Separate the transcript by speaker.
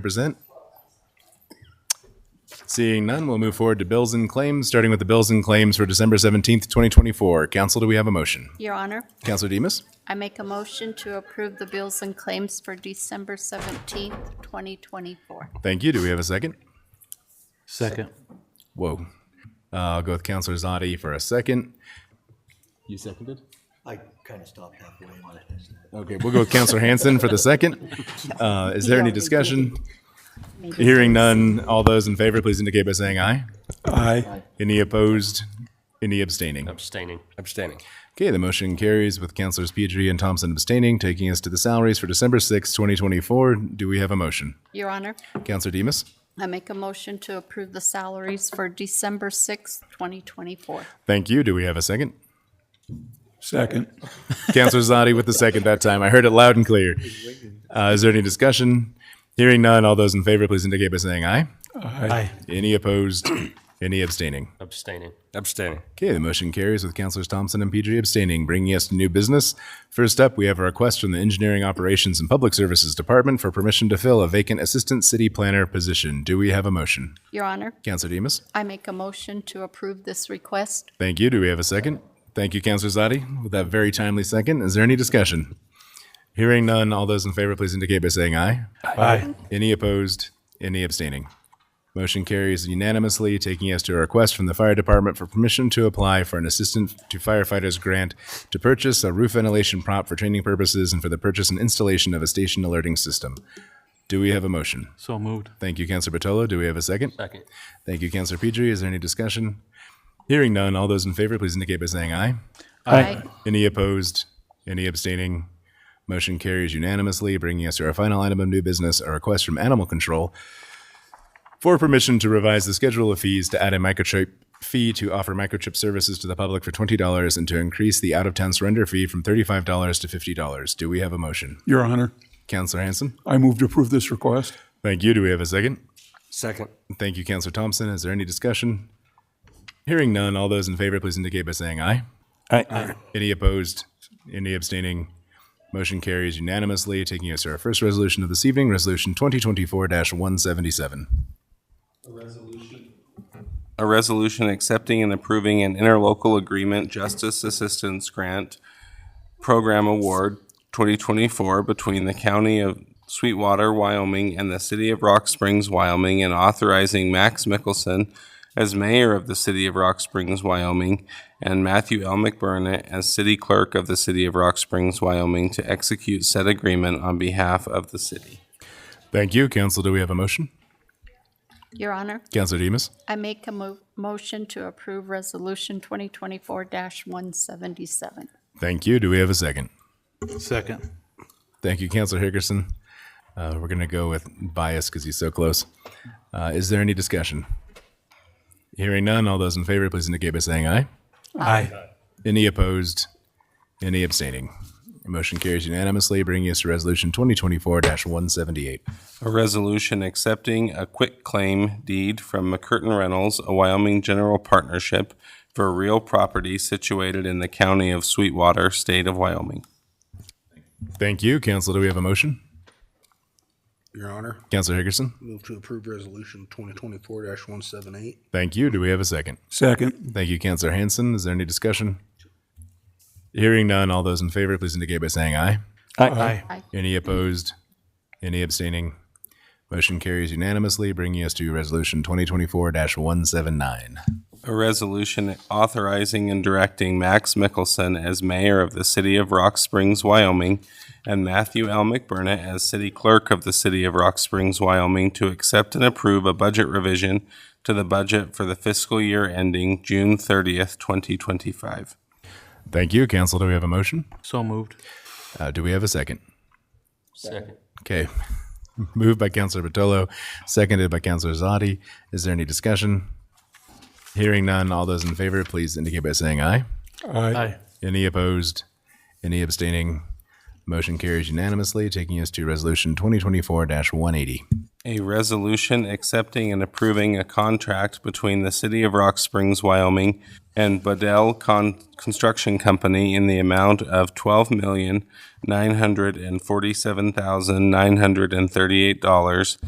Speaker 1: Represent. Seeing none, we'll move forward to bills and claims, starting with the bills and claims for December 17th, 2024. Council, do we have a motion?
Speaker 2: Your Honor,
Speaker 1: Councilor Demus,
Speaker 2: I make a motion to approve the bills and claims for December 17th, 2024.
Speaker 1: thank you. Do we have a second?
Speaker 3: Second.
Speaker 1: Whoa. Uh, I'll go with Councilor Zadi for a second. You seconded?
Speaker 4: I kind of stopped halfway.
Speaker 1: Okay, we'll go with Counselor Hanson for the second. Uh, Is there any discussion? Hearing none, all those in favor, please indicate by saying aye. Aye. Any opposed? Any abstaining?
Speaker 5: Abstaining.
Speaker 6: Abstaining.
Speaker 1: Okay, the motion carries with Councilors Pedri and Thompson abstaining, taking us to the salaries for December sixth, 2024. Do we have a motion?
Speaker 2: Your Honor,
Speaker 1: Counselor Demas?
Speaker 2: I make a motion to approve the salaries for December 6th, 2024.
Speaker 1: Thank you. Do we have a second?
Speaker 3: Second.
Speaker 1: Counselor Zadi with the second that time. I heard it loud and clear. Uh, Is there any discussion? Hearing none, all those in favor, please indicate by saying aye.
Speaker 3: Aye.
Speaker 1: Any opposed? Any abstaining?
Speaker 5: Abstaining.
Speaker 6: Abstaining.
Speaker 1: Okay, the motion carries with Councilors Thompson and PG abstaining, bringing us to new business. First up, we have a request from the Engineering Operations and Public Services Department for permission to fill a vacant Assistant City Planner position. Do we have a motion?
Speaker 2: Your Honor,
Speaker 1: Councilor Demas?
Speaker 2: I make a motion to approve this request.
Speaker 1: Thank you. Do we have a second? Thank you, Councilor Zadi, with that very timely second. Is there any discussion? Hearing none, all those in favor, please indicate by saying aye.
Speaker 3: Aye.
Speaker 1: Any opposed? Any abstaining? Motion carries unanimously, taking us to a request from the fire department for permission to apply for an assistant to firefighters grant to purchase a roof ventilation prop for training purposes and for the purchase and installation of a station alerting system. Do we have a motion?
Speaker 3: So moved.
Speaker 1: Thank you, Councilor Batolo. Do we have a second?
Speaker 5: Second.
Speaker 1: Thank you, Councilor Pedri. Is there any discussion? Hearing none, all those in favor, please indicate by saying aye.
Speaker 2: Aye.
Speaker 1: Any opposed? Any abstaining? Motion carries unanimously, bringing us to our final item of new business, a request from Animal Control for permission to revise the schedule of fees to add a microchip fee to offer microchip services to the public for $20 and to increase the out-of-town surrender fee from $35 to $50. Do we have a motion?
Speaker 3: Your Honor,
Speaker 1: Counselor Hanson?
Speaker 3: I move to approve this request.
Speaker 1: Thank you. Do we have a second?
Speaker 6: Second.
Speaker 1: Thank you, Counselor Thompson. Is there any discussion? Hearing none, all those in favor, please indicate by saying aye.
Speaker 3: Aye.
Speaker 1: Any opposed? Any abstaining? Motion carries unanimously, taking us to our first resolution of this evening, Resolution 2024-177.
Speaker 6: A resolution accepting and approving an interlocal agreement justice assistance grant program award 2024 between the County of Sweetwater, Wyoming and the City of Rock Springs, Wyoming, and authorizing Max Mickelson as mayor of the City of Rock Springs, Wyoming, and Matthew L. McBurnett as city clerk of the City of Rock Springs, Wyoming, to execute said agreement on behalf of the city.
Speaker 1: Thank you. Council, do we have a motion?
Speaker 2: Your Honor,
Speaker 1: Councilor Demus?
Speaker 2: I make a mo- motion to approve Resolution 2024-177.
Speaker 1: Thank you. Do we have a second?
Speaker 3: Second.
Speaker 1: Thank you, Councilor Hickerson. Uh, We're going to go with bias because he's so close. Uh, Is there any discussion? Hearing none, all those in favor, please indicate by saying aye.
Speaker 3: Aye.
Speaker 1: Any opposed? Any abstaining? Motion carries unanimously, bringing us to Resolution 2024-178.
Speaker 6: A resolution accepting a quit claim deed from McCurtain Reynolds, a Wyoming general partnership for real property situated in the county of Sweetwater, state of Wyoming.
Speaker 1: Thank you, Council. Do we have a motion?
Speaker 4: Your Honor,
Speaker 1: Councilor Hickerson?
Speaker 4: move to approve resolution twenty twenty-four one seven eight.
Speaker 1: Thank you. Do we have a second?
Speaker 3: Second.
Speaker 1: Thank you, Councilor Hanson. Is there any discussion? Hearing none, all those in favor, please indicate by saying aye.
Speaker 3: Aye.
Speaker 1: Any opposed? Any abstaining? Motion carries unanimously, bringing us to Resolution 2024-179.
Speaker 6: A resolution authorizing and directing Max Mickelson as mayor of the city of Rock Springs, Wyoming, and Matthew L. McBurnett as city clerk of the city of Rock Springs, Wyoming, to accept and approve a budget revision to the budget for the fiscal year ending June thirtieth, twenty twenty-five.
Speaker 1: Thank you, Council. Do we have a motion?
Speaker 3: So moved.
Speaker 1: Uh, Do we have a second?
Speaker 5: Second.
Speaker 1: Okay. Moved by Councilor Batolo, seconded by Councilor Zadi. Is there any discussion? Hearing none, all those in favor, please indicate by saying aye.
Speaker 3: Aye.
Speaker 1: Any opposed? Any abstaining? Motion carries unanimously, taking us to Resolution 2024-180.
Speaker 6: A resolution accepting and approving a contract between the City of Rock Springs, Wyoming and Badel Con- Construction Company in the amount of twelve million nine hundred and forty-seven thousand nine hundred and thirty-eight dollars